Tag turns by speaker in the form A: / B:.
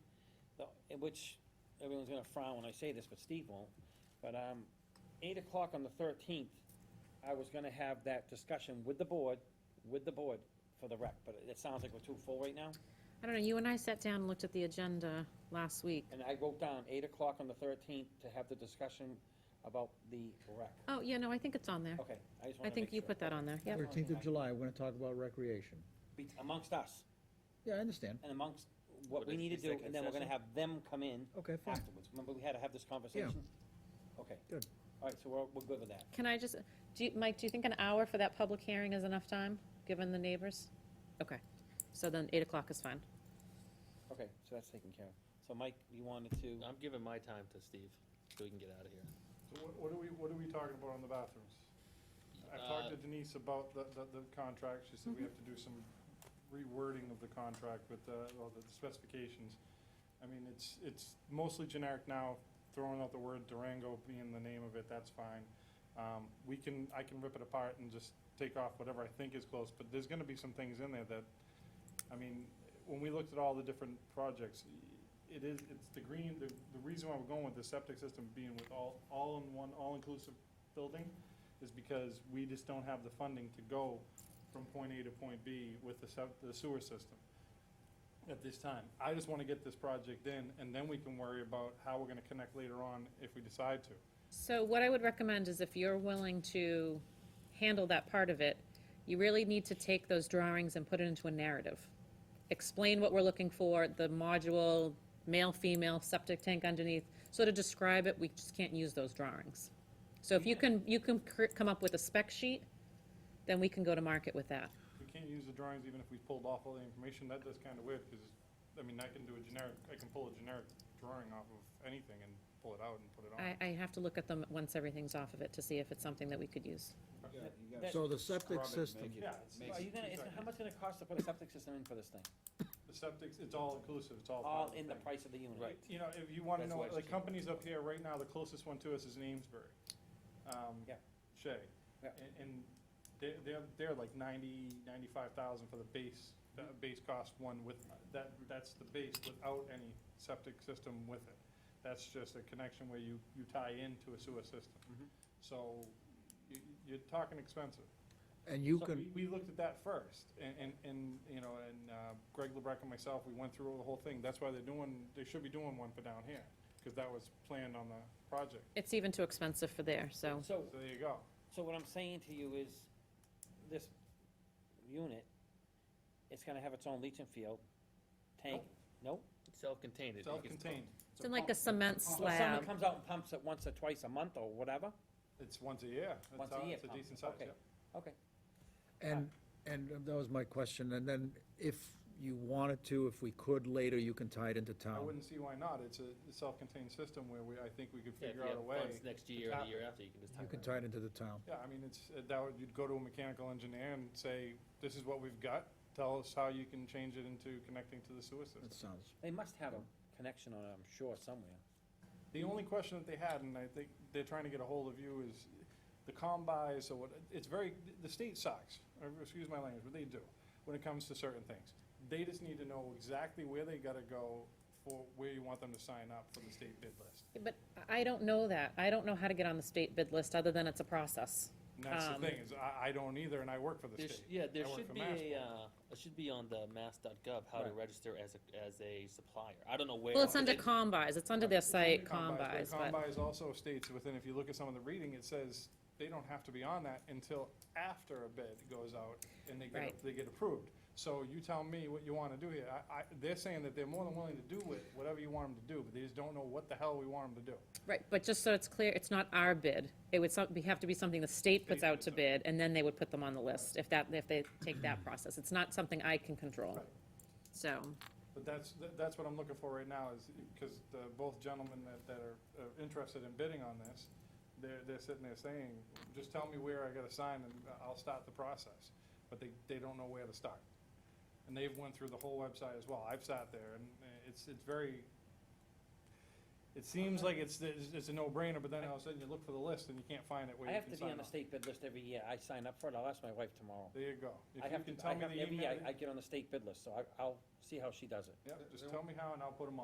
A: in which everyone's gonna frown when I say this, but Steve won't. But, um, eight o'clock on the thirteenth, I was gonna have that discussion with the board, with the board for the rec, but it sounds like we're too full right now.
B: I don't know, you and I sat down and looked at the agenda last week.
A: And I wrote down eight o'clock on the thirteenth to have the discussion about the rec.
B: Oh, yeah, no, I think it's on there.
A: Okay, Oh, I just wanted to
B: I
A: make
B: think you
A: sure.
B: put that on there, yep.
A: Yep.
C: Thirteenth of July, we're gonna talk about recreation.
A: Be- Amongst us
C: Yeah, I understand.
A: and amongst what
D: What
A: we
D: is
A: need to
D: the
A: do, and
D: executive
A: then we're gonna
D: session?
A: have them come in
C: Okay, fine.
A: afterwards. Remember, we had to have this conversation? Okay.
C: Good.
A: All right, so we're, we're good with that.
B: Can I just, do you, Mike, do you think an hour for that public hearing is enough time, given the neighbors? Okay, so then eight o'clock is fine.
A: Okay, so that's taken care of. So Mike, you wanted to,
D: I'm giving my time to Steve, so we can get out of here.
E: So what, what are we, what are we talking about on the bathrooms? I've talked to Denise about the, the, the contract, she said we have to do some rewording of the contract with the, well, the specifications. I mean, it's, it's mostly generic now, throwing out the word Durango being the name of it, that's fine. Um, we can, I can rip it apart and just take off whatever I think is close, but there's gonna be some things in there that, I mean, when we looked at all the different projects, it is, it's the green, the, the reason why we're going with the septic system being with all, all in one, all-inclusive building is because we just don't have the funding to go from point A to point B with the sep- the sewer system at this time. I just wanna get this project in, and then we can worry about how we're gonna connect later on if we decide to.
B: So what I would recommend is if you're willing to handle that part of it, you really need to take those drawings and put it into a narrative. Explain what we're looking for, the module, male, female, septic tank underneath, so to describe it, we just can't use those drawings. So if you can, you can cr- come up with a spec sheet, then we can go to market with that.
E: We can't use the drawings even if we pulled off all the information, that does kinda weird, cause, I mean, I can do a generic, I can pull a generic drawing off of anything and pull it out and put it on.
B: I, I have to look at them once everything's off of it to see if it's something that we could use.
C: So the septic system,
E: Yeah, it's-
A: are you gonna, it's- how much gonna cost to put a septic system in for this thing?
E: The septic, it's all inclusive, it's all. part
A: All
E: of
A: in the
E: thing.
A: price of the unit?
D: Right.
E: You know, if you wanna
D: That's
E: know,
D: why it's
E: the
D: cheap.
E: companies up here right now, the closest one to us is in Amesbury. Um,
A: Yeah.
E: Shea.
A: Yeah.
E: And, and they're, they're, they're like ninety, ninety-five thousand for the base, the base cost one with, that, that's the base without any septic system with it. That's just a connection where you, you tie into a sewer
A: Mhm.
E: system. So, you, you're talking expensive.
C: and you
E: So
C: can,
E: We we looked at that first, and, and, and, you know, and uh, Greg Lebrecht and myself, we went through the whole thing. That's why they're doing, they should be doing one for down here, because that was planned on the project.
B: It's even too expensive for there, so,
A: So,
E: So there you go.
A: so what I'm saying to you is, this unit, it's gonna have its own leaching field, tank, no?
D: Self-contained. it- it gets
E: Self-contained.
B: it's in like a cement
A: So someone
B: slab.
A: comes out and pumps it once or twice a month or whatever?
E: It's once a year. That's
A: Once a
E: how-
A: year
E: It's a
A: pump.
E: decent size,
A: Okay.
E: yeah.
A: Okay,
C: and, and that was my question, and then if you wanted to, if we could later, you can tie it into
E: I
C: town.
E: wouldn't see why not. It's a self-contained system where we, I think we could
D: Yeah, if
E: figure
D: you
E: out
D: have
E: a way.
D: funds next year or the year after, you can just tie
C: You
D: it
C: can
D: in.
C: tie it into the town.
E: Yeah, I mean, it's, uh, that would, you'd go to a mechanical engineer and say, this is what we've got. Tell us how you can change it into connecting to the sewer system.
C: That sounds,
A: they must have a connection on it, I'm sure, somewhere.
E: The only question that they had, and I think they're trying to get a hold of you, is the combis or what, it's very, the state sucks, or excuse my language, but they do, when it comes to certain things. They just need to know exactly where they gotta go for, where you want them to sign up for the state bid list.
B: But I don't know that. I don't know how to get on the state bid list, other than it's a process.
E: And that's the
B: Um,
E: thing, is I, I don't either, and I work for the
D: There sh-
E: state.
D: Yeah, there
E: I work
D: should
E: for
D: be
E: Massport.
D: a, uh, it should be on the mass.gov, how to
A: Right.
D: register as a, as a supplier. I don't know where.
B: Well, it's
D: but
B: under
D: they-
B: combis, it's under their
E: It's under
B: site
E: Combis,
B: combis, but,
E: Combis also states within, if you look at some of the reading, it says they don't have to be on that until after a bid goes out and they
B: Right.
E: get, they get approved. So you tell me what you wanna do here. I, I, they're saying that they're more than willing to do it, whatever you want them to do, but they just don't know what the hell we want them to do.
B: right, but just so it's clear, it's not our bid. It would some- be- have to be something the state puts
E: State
B: out to
E: puts out.
B: bid, and then they would put them on the list, if that, if they take that process. It's not something I can control.
E: Right.
B: So,
E: But that's, tha- that's what I'm looking for right now is, because the, both gentlemen that, that are uh, interested in bidding on this, they're, they're sitting there saying, just tell me where I gotta sign and uh, I'll start the process. But they, they don't know where to start. And they've went through the whole website as well. I've sat there and uh, it's, it's very, it seems like it's, it's it's a no-brainer, but then all of a sudden you look for the list and you can't find it where
A: I
E: you
A: have
E: can
A: to be
E: sign
A: on the
E: up.
A: state bid list every year, I sign up for it, I'll ask my wife tomorrow.
E: There you go.
A: I
E: If you
A: have to,
E: can tell
A: I
E: me
A: have,
E: the
A: every
E: email,
A: year I- I get on the state bid list, so I, I'll see how she does it.
E: yeah, just tell me how and I'll put them on.